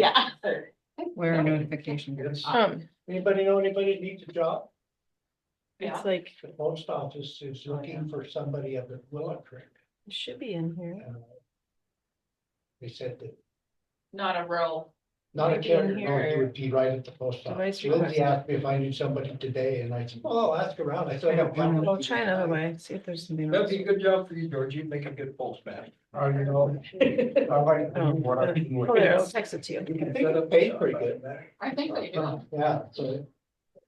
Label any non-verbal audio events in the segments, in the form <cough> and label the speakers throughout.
Speaker 1: Yeah.
Speaker 2: Where are notifications?
Speaker 3: Um,
Speaker 4: Anybody know anybody that needs a job?
Speaker 1: Yeah.
Speaker 3: it's like,
Speaker 4: The post office is looking for somebody up at Willow Creek.
Speaker 3: it should be in here.
Speaker 4: Uh, They said that
Speaker 1: Not a row.
Speaker 4: Not a
Speaker 1: Maybe in
Speaker 4: carrier, no, it
Speaker 1: here.
Speaker 4: would be right at the post
Speaker 3: Device
Speaker 4: office. Lindsay
Speaker 3: request.
Speaker 4: asked me if I knew somebody today and I said, well, I'll ask around. I still have. one.
Speaker 3: I'll try another way, see if there's something
Speaker 5: That'd
Speaker 3: else.
Speaker 5: be a good job for you, George. You'd make a good postman.
Speaker 4: Oh, you know.
Speaker 5: I like
Speaker 3: Oh,
Speaker 5: what I can
Speaker 3: Oh, there,
Speaker 5: work.
Speaker 3: I'll text it to you.
Speaker 5: You can
Speaker 4: Set up pay pretty good.
Speaker 1: I think they do.
Speaker 4: Yeah, so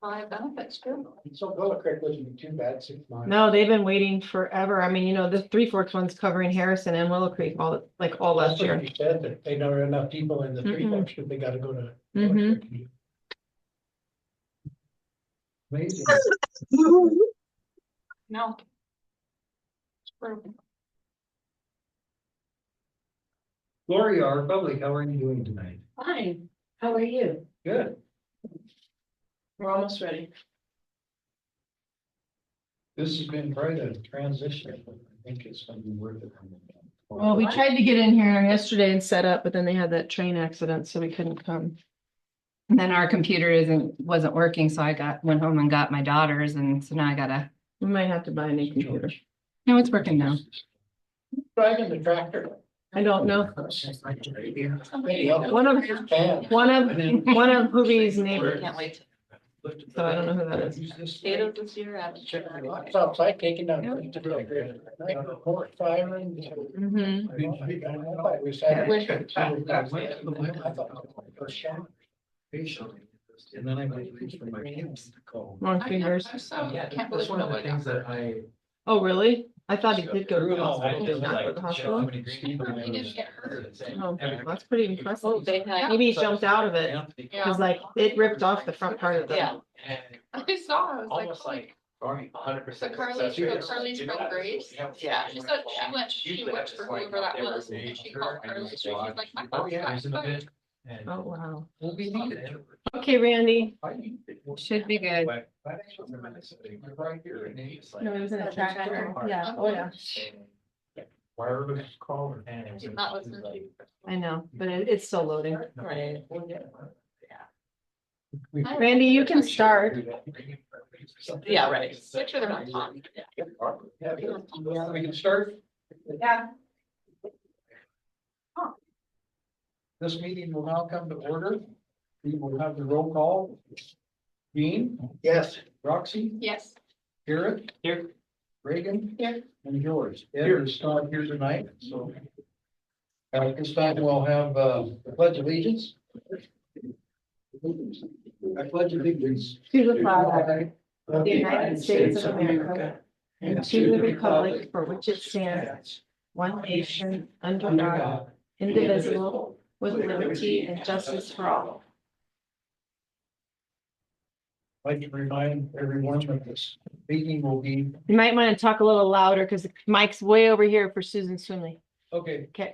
Speaker 1: Five benefits too.
Speaker 4: so Willow Creek wasn't too bad, six miles.
Speaker 3: No, they've been waiting forever. I mean, you know, the Three Forks one's covering Harrison and Willow Creek all, like all
Speaker 4: That's
Speaker 3: last
Speaker 4: what
Speaker 3: year.
Speaker 4: you said, that they don't have enough people in the three
Speaker 3: Mhm.
Speaker 4: bucks, they gotta go to.
Speaker 3: Mhm.
Speaker 5: Amazing.
Speaker 1: No.
Speaker 5: Gloria, our public, how are you doing tonight?
Speaker 1: Fine. How are you?
Speaker 5: Good.
Speaker 1: We're almost ready.
Speaker 5: This has been quite a transition. I think it's gonna be worth it.
Speaker 3: Well, we tried to get in here yesterday and set up, but then they had that train accident, so we couldn't come.
Speaker 2: And then our computer isn't, wasn't working, so I got, went home and got my daughters and so now I gotta,
Speaker 3: We might have to buy a new computer.
Speaker 2: no, it's working now.
Speaker 4: Driving the tractor.
Speaker 3: I don't know.
Speaker 4: Somebody else.
Speaker 3: One of,
Speaker 4: Damn.
Speaker 3: one of, one of Hoovy's neighbors.
Speaker 1: Can't wait.
Speaker 3: So I don't know who that is.
Speaker 1: Potatoes this year. I haven't
Speaker 4: Check the
Speaker 1: tried.
Speaker 4: lights outside, taking down.
Speaker 2: Yeah.
Speaker 4: Firing.
Speaker 5: Mm-hmm.
Speaker 3: Mhm.
Speaker 5: And then I made things for my kids to call.
Speaker 3: Long fingers.
Speaker 1: Oh, Yeah, I can't
Speaker 5: That's
Speaker 1: believe
Speaker 5: one of the
Speaker 1: nobody.
Speaker 5: things that I.
Speaker 3: Oh, really? I thought he did go to the hospital. He's not at the hospital. Oh, that's pretty
Speaker 1: Oh,
Speaker 3: impressive.
Speaker 1: they had.
Speaker 3: Maybe he jumped out of it.
Speaker 1: Yeah.
Speaker 3: Cause like it ripped off the front part of the,
Speaker 1: Yeah. <laughs> I saw, I was like.
Speaker 6: Almost
Speaker 1: holy
Speaker 6: like Barney, hundred
Speaker 1: The
Speaker 6: percent.
Speaker 1: Carly's, the Carly's from Grace, yeah, she said she went, she worked for whoever that was, and she called Carly, so she's like, my
Speaker 6: Oh,
Speaker 1: boss
Speaker 6: yeah,
Speaker 1: got
Speaker 6: there's an
Speaker 1: fired.
Speaker 6: event. And
Speaker 3: oh, wow.
Speaker 5: We'll be needed.
Speaker 3: Okay, Randy.
Speaker 2: Should be good.
Speaker 6: Right here. and it's like-
Speaker 3: No, it was in a tractor. Yeah, oh, yeah.
Speaker 6: Why everybody's calling? and it was-
Speaker 1: Did not listen to you.
Speaker 3: I know, but it, it's still loading.
Speaker 1: Right.
Speaker 3: Randy, you can start.
Speaker 1: Yeah, right, make sure they're not talking.
Speaker 5: We can start.
Speaker 1: Yeah.
Speaker 5: This meeting will now come to order. We will have the roll call. Dean,
Speaker 4: Yes.
Speaker 5: Roxy,
Speaker 1: Yes,
Speaker 5: Eric. Here. Reagan.
Speaker 1: Here.
Speaker 5: And George. Ed is not here tonight, so. uh, At this time, we'll have uh, the pledge of allegiance. I pledge allegiance.
Speaker 3: To the flag of the United States of America and to the republic for which it stands, one nation, under God, indivisible, with liberty and justice for all.
Speaker 5: I'd like to remind everyone that this meeting will be,
Speaker 3: You might want to talk a little louder because the mic's way over here for Susan Swinley.
Speaker 5: okay,
Speaker 3: Okay.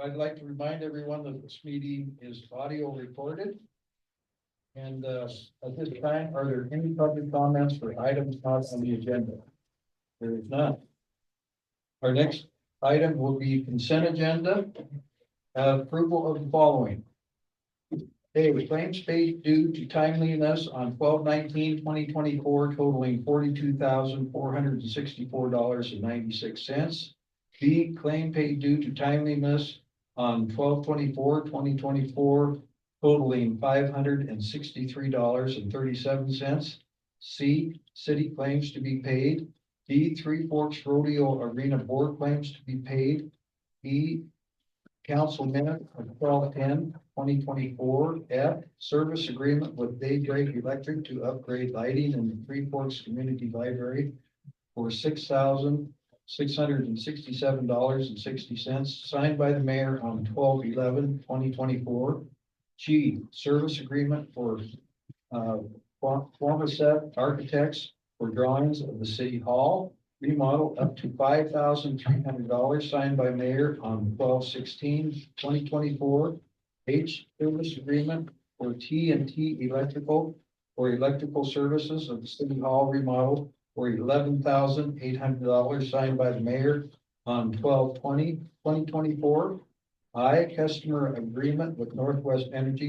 Speaker 5: I'd like to remind everyone that this meeting is audio recorded. And uh, at this time, are there any public comments for items not on the agenda? There is none. Our next item will be consent agenda. Uh, Approval of the following. A, with claims paid due to timeliness on 2024 totaling forty-two thousand, four hundred and sixty-four dollars and ninety-six cents. B, claim paid due to timeliness on 2024 totaling five hundred and sixty-three dollars and thirty-seven cents. C, city claims to be paid. D, Three Forks Rodeo Arena Board claims to be paid. E, council minute of 2024. F, service agreement with Daybreak Electric to upgrade lighting in the Three Forks Community Library for six thousand six hundred and sixty-seven dollars and sixty cents, signed by the mayor on 2024. G, service agreement for uh, for- former set architects for drawings of the city hall. Remodel up to five thousand three hundred dollars signed by mayor on 2024. H, service agreement for T and T electrical for electrical services of the city hall remodel for eleven thousand eight hundred dollars signed by the mayor on 2024. I, customer agreement with Northwest Energy